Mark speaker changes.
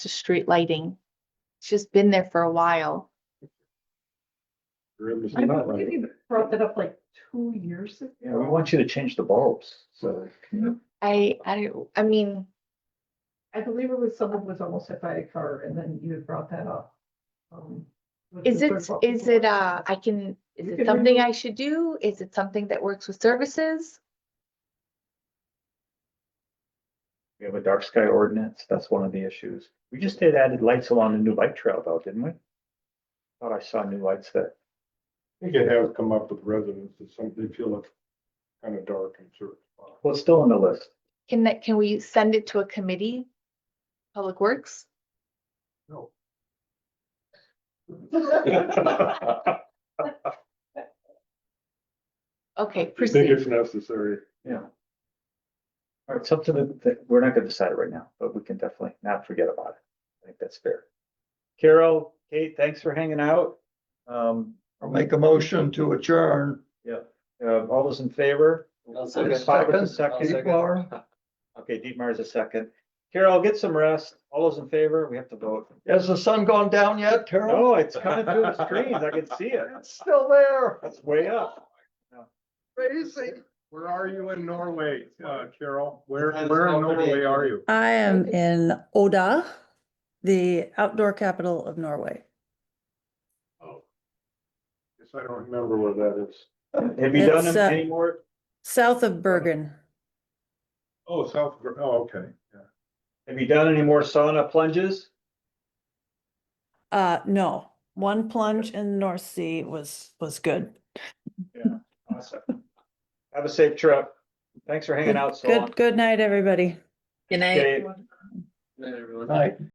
Speaker 1: to street lighting. It's just been there for a while.
Speaker 2: Room is
Speaker 3: I
Speaker 2: not
Speaker 3: think
Speaker 2: right.
Speaker 3: we brought that up like two years ago.
Speaker 4: Yeah, we want you to change the bulbs, so.
Speaker 1: I, I, I mean,
Speaker 3: I believe it was someone was almost hit by a car and then you had brought that up. Um, what
Speaker 1: is
Speaker 3: the
Speaker 1: it,
Speaker 3: third bulb
Speaker 1: is
Speaker 3: was.
Speaker 1: it, uh, I can, is
Speaker 3: You
Speaker 1: it
Speaker 3: can
Speaker 1: something
Speaker 3: remove-
Speaker 1: I should do? Is it something that works with services?
Speaker 4: We have a dark sky ordinance, that's one of the issues. We just did added lights along the new bike trail though, didn't we? Thought I saw new lights that,
Speaker 2: I think it has come up with residents that some, they feel it's kind of dark and certain. spots.
Speaker 4: well, it's still on the list.
Speaker 1: Can that, can we send it to a committee? Public Works?
Speaker 2: No.
Speaker 1: Okay,
Speaker 2: I think
Speaker 1: proceed.
Speaker 2: it's necessary.
Speaker 4: Yeah. All right, something that, that we're not gonna decide right now, but we can definitely not forget about it. I think that's fair. Carol, Kate, thanks for hanging out. Um,
Speaker 5: I'll make a motion to adjourn.
Speaker 4: yeah, uh, all those in favor?
Speaker 6: I'll second.
Speaker 4: Five with a
Speaker 5: Second.
Speaker 4: second.
Speaker 6: Second.
Speaker 5: Dietmar?
Speaker 4: Okay, Dietmar is a second. Carol, get some rest. All those in favor, we have to vote.
Speaker 5: Has the sun gone down yet, Carol?
Speaker 4: No, it's coming through the screens. I can see it.
Speaker 5: It's still there.
Speaker 4: That's way up.
Speaker 5: Crazy.
Speaker 2: Where are you in Norway, uh, Carol? Where,
Speaker 6: Sometimes
Speaker 2: where in
Speaker 6: it's already-
Speaker 2: Norway are you?
Speaker 7: I am
Speaker 3: Okay.
Speaker 7: in Oda, the outdoor capital of Norway.
Speaker 2: Oh. Guess I don't remember where that is.
Speaker 4: Have you done
Speaker 7: It's, uh,
Speaker 4: any more?
Speaker 7: South of Bergen.
Speaker 2: Oh, South, Gr- oh, okay, yeah.
Speaker 4: Have you done any more sauna plunges?
Speaker 7: Uh, no, one plunge in the North Sea was, was good.
Speaker 4: Awesome. Have a safe trip. Thanks for hanging out so long.
Speaker 7: Good, good night, everybody.
Speaker 8: Good night.
Speaker 4: Okay.
Speaker 6: Night, everyone.
Speaker 5: Night.